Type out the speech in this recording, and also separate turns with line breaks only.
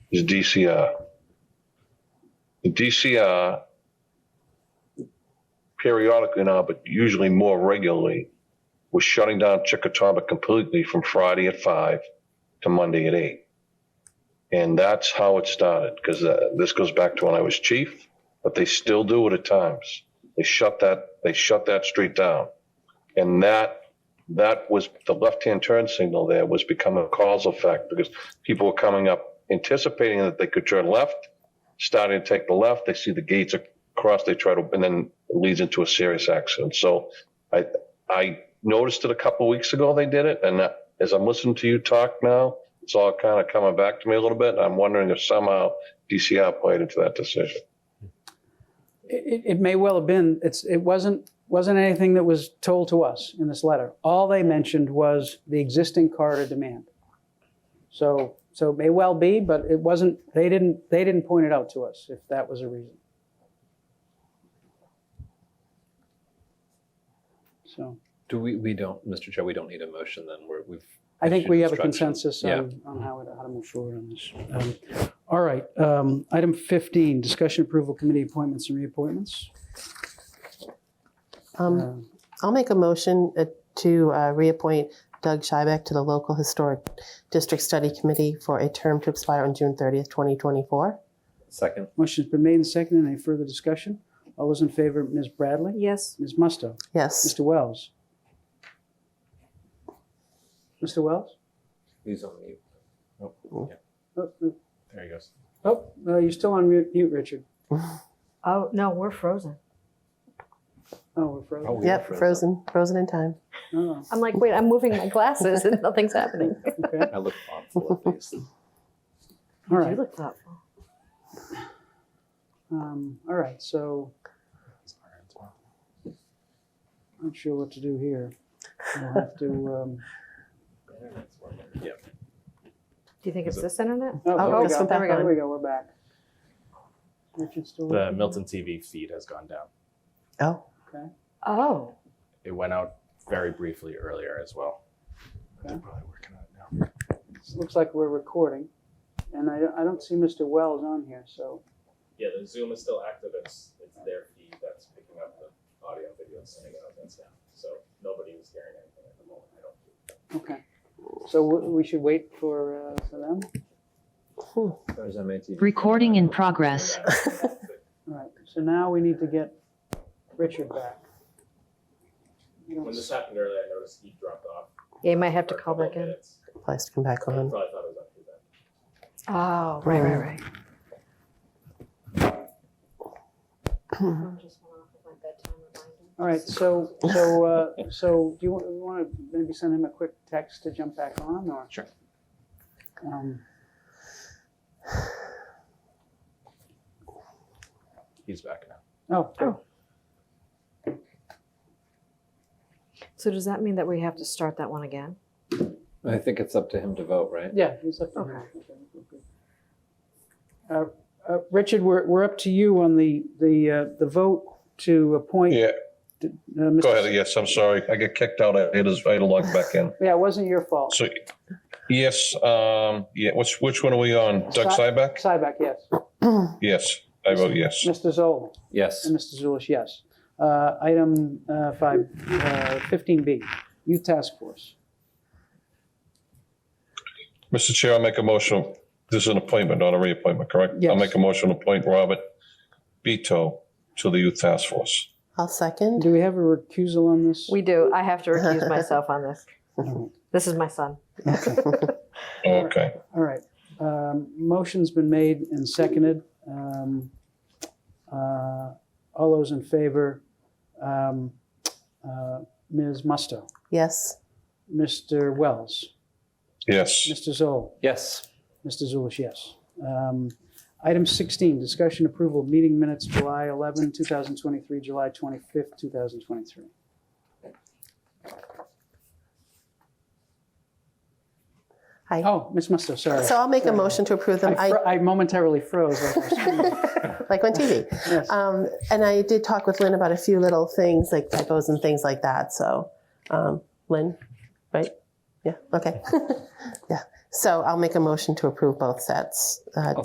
is DCR. The DCR periodically now, but usually more regularly, was shutting down Chickatobit completely from Friday at five to Monday at eight. And that's how it started, because this goes back to when I was chief, but they still do it at times. They shut that, they shut that street down. And that that was the left-hand turn signal there was becoming a causal effect because people were coming up anticipating that they could turn left, starting to take the left. They see the gates across, they try to, and then it leads into a serious accident. So I, I noticed it a couple weeks ago they did it, and uh, as I'm listening to you talk now, it's all kind of coming back to me a little bit. I'm wondering if somehow DCR played into that decision.
It, it may well have been, it's, it wasn't, wasn't anything that was told to us in this letter. All they mentioned was the existing corridor demand. So, so it may well be, but it wasn't, they didn't, they didn't point it out to us if that was a reason. So
Do we, we don't, Mr. Chair, we don't need a motion then, we're, we've.
I think we have a
Instruction.
consensus
Yeah.
on, on how to, how to move forward on this. Um, All right, um, item 15, discussion approval committee appointments and reappointments.
Um,
Um,
I'll make a motion uh, to uh, reappoint Doug Schiebeck to the Local Historic District Study Committee for a term to expire on June 30th, 2024.
Second,
Motion's been made and seconded. Any further discussion? All those in favor, Ms. Bradley?
Yes.
Ms. Musto?
Yes.
Mr. Wells? Mr. Wells?
he's on mute. Oh, yeah,
Oh, no.
There he goes.
Oh, no, you're still on mute, mute, Richard.
Oh, no, we're frozen.
Oh, we're frozen.
we are
Yep, frozen, frozen in time.
Oh,
I'm like, wait, I'm moving my glasses and nothing's happening.
okay.
I look thoughtful at least.
All
You
right,
look thoughtful.
um, all right, so not sure what to do here. We'll have to, um.
Do you think it's this internet?
Oh,
there we
this
go.
went back
There
on.
we go, we're back. Richard's still. with
The
me?
Milton TV feed has gone down.
Oh,
Oh,
It went out very briefly earlier as well.
They're
probably working on it now.
Looks like we're recording, and I, I don't see Mr. Wells on here, so.
Yeah, the Zoom is still active. It's it's their feed that's picking up the audio, and video, and sending it out. That's down. So nobody was hearing anything at the moment. I don't.
Okay, so w- we should wait for, uh, for them?
There's MAT.
Recording in progress.
All right, so now we need to get Richard back.
When this happened earlier, I noticed he dropped off.
yeah, you might have to
for a
call
couple
back
of
in.
minutes.
applies to come back
I
on.
probably thought it was up to that.
Oh, right, right, right. Phone just went off with my bedtime reminder.
All right, so, so, uh, so do you want to maybe send him a quick text to jump back on, or?
Sure.
Um,
He's back now.
Oh, good.
So does that mean that we have to start that one again?
I think it's up to him to vote, right?
yeah, he's up to you. Uh, uh, Richard, we're, we're up to you on the, the, uh, the vote to appoint.
Yeah.
uh, Mr.
Go ahead. Yes, I'm sorry. I get kicked out. I had to I had to log back in.
Yeah, it wasn't your fault.
So, yes, um, yeah, which, which one are we on? Doug
Si-
Cyback?
Cyback, yes.
Yes, I vote yes.
Mr. Zoll
Yes,
and Mr. Zulish, yes. Uh, Item uh, five, uh, 15B, Youth Task Force.
Mr. Chair, I'll make a motion. This is an appointment, not a reappointment, correct?
Yes.
I'll make a motion to appoint Robert Beto to the Youth Task Force.
I'll second.
Do we have a recusal on this?
We do. I have to recuse myself on this.
All
This is my son.
Okay.
right. Um, Motion's been made and seconded. Um, uh, All those in favor, um, uh, Ms. Musto,
Yes.
Mr. Wells,
Yes,
Mr. Zoll,
Yes.
Mr. Zulish, yes. Um, Item 16, discussion approval of meeting minutes, July 11, 2023, July 25th, 2023.
Hi.
Oh, Ms. Musto, sorry.
So I'll make a motion to approve them.
I,
I,
fro- I momentarily froze. like I was screaming.
like on TV.
Yes.
Um, and I did talk with Lynn about a few little things like typos and things like that. So, um, Lynn, right? Yeah, okay. yeah. So I'll make a motion to approve both sets. Uh,